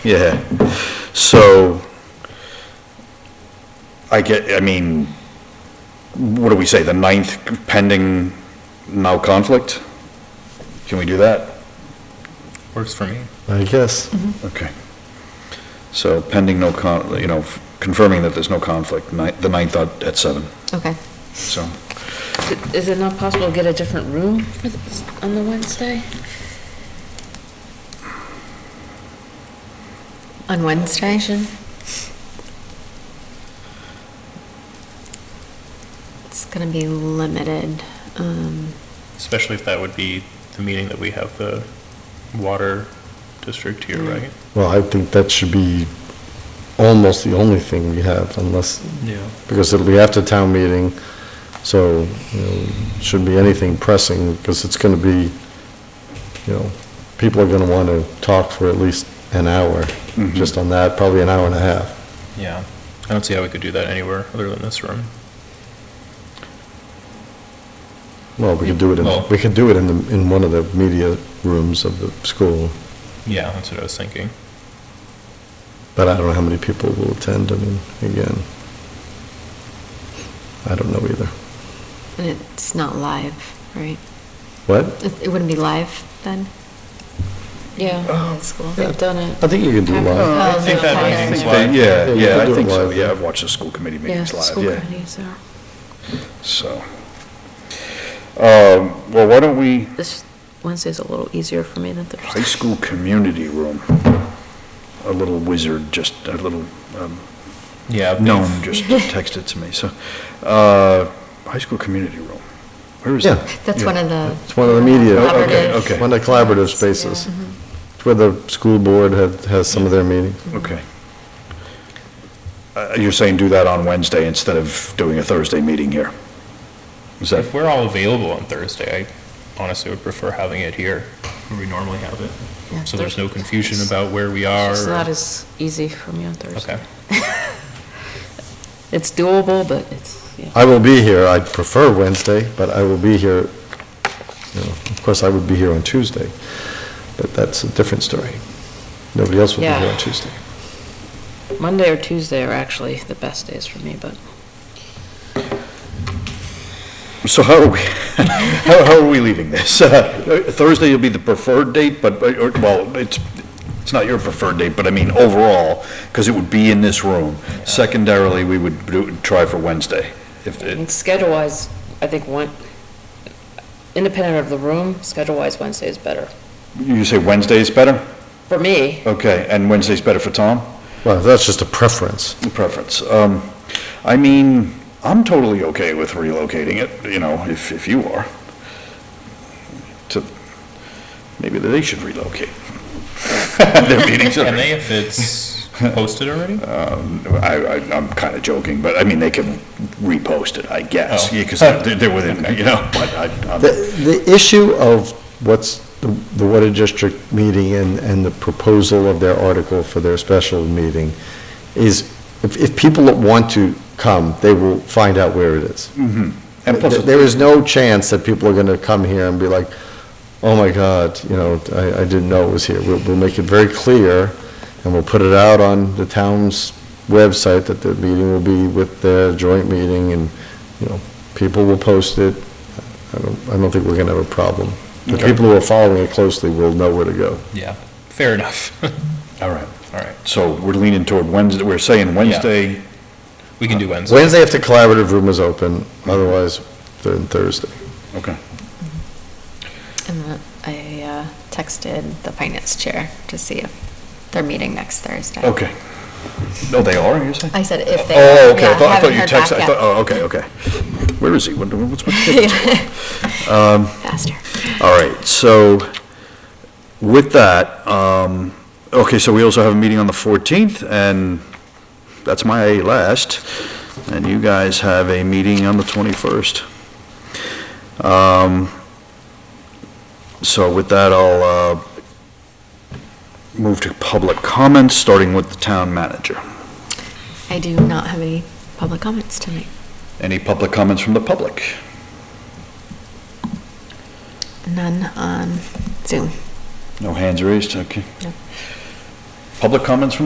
Yeah, so, I get, I mean, what do we say, the ninth pending now conflict? Can we do that? Works for me. I guess. Okay. So pending no con, you know, confirming that there's no conflict, ni- the ninth at at seven, Okay. so. Is it not possible to get a different room for this, on the Wednesday? On Wednesday? It's going to be limited. Um, Especially if that would be the meeting that we have the water district here, Mm. right? Well, I think that should be almost the only thing we have unless, Yeah. because it'll be after town meeting, so, you know, shouldn't be anything pressing, because it's gonna be, you know, people are gonna wanna talk for at least an hour, just on that, probably an hour and a half. Yeah. I don't see how we could do that anywhere other than this room. Well, we could do it Well- in, we could do it in the, in one of the media rooms of the school, Yeah, that's what I was thinking. but I don't know how many people will attend, I mean, again. I don't know either. And it's not live, right? What? It it wouldn't be live then? Oh. Uh, Yeah, they've done it. I think you can do live. I think that meeting's live. They- Yeah, Yeah, you yeah, can I do it think so, live. yeah, I've watched the school committee meetings live, yeah. are. So, um, well, why don't we, This Wednesday's a little easier for me than high Thursday. school community room, a little wizard, just a little um, Yeah. gnome just texted to me, so, uh, high school community room, where is Yeah. that? That's one of the. It's one of the media. Oh, okay, okay. One of the collaborative spaces. It's where the school board have- has some of their meetings. Okay. Uh, You're saying do that on Wednesday instead of doing a Thursday meeting here? Is that, If we're all available on Thursday, I honestly would prefer having it here where we normally have Yeah, it. So there's Thur- no confusion about where we are. It's not or- as easy for me on Thursday. Okay. It's doable, but it's, yeah. I will be here, I prefer Wednesday, but I will be here, you know, of course, I would be here on Tuesday, but that's a different story. Nobody else will be here Yeah. on Tuesday. Monday or Tuesday are actually the best days for me, but so how are we, how how are we leaving this? Uh, Thursday will be the preferred date, but, but, or- well, it's, it's not your preferred date, but I mean overall, because it would be in this room. Secondarily, we would do- try for Wednesday, if I mean, it, schedule-wise, I think one, independent of the room, schedule-wise, Wednesday is better. you say Wednesday is better? For me, Okay, and Wednesday's better for Tom? Well, that's just a preference. preference. Um, I mean, I'm totally okay with relocating it, you know, if, if you are. To, maybe they should relocate. Their meetings Can are, they if it's posted already? I, I, I'm kinda joking, but I mean, they can repost it, I guess, Oh. yeah, cause they're, they're within, you know, but I, I'm. The, the issue of what's the the Water District meeting and, and the proposal of their article for their special meeting is, if, if people want to come, they will find out where it is. And plus, There is no chance that people are gonna come here and be like, oh my God, you know, I, I didn't know it was here. We'll, we'll make it very clear, and we'll put it out on the town's website that the meeting will be with their joint meeting, and, you know, people will post it. I don't, I don't think we're gonna have a problem. The Okay. people who are following it closely will know where to go. Yeah. Fair enough. all right, All right. so we're leaning toward Wednesday, we're saying Wednesday, We can do Wednesday. Wednesday, if the collaborative room is open, otherwise, then Thursday. okay. And the- I uh, texted the finance chair to see if they're meeting next Thursday. Okay. No, they are, you're saying? I said if they. Oh, okay, yeah, I thought, I haven't thought you heard back texted, I yet. thought, oh, okay, okay. Where is he? What- What's my kid? oh. Faster. All right, so with that, um, okay, so we also have a meeting on the 14th, and that's my last, and you guys have a meeting on the 21st. Um, So with that, I'll uh, move to public comments, starting with the town manager. I do not have any public comments tonight. Any public comments from the public? None on Zoom. No hands raised, okay. No. Public comments from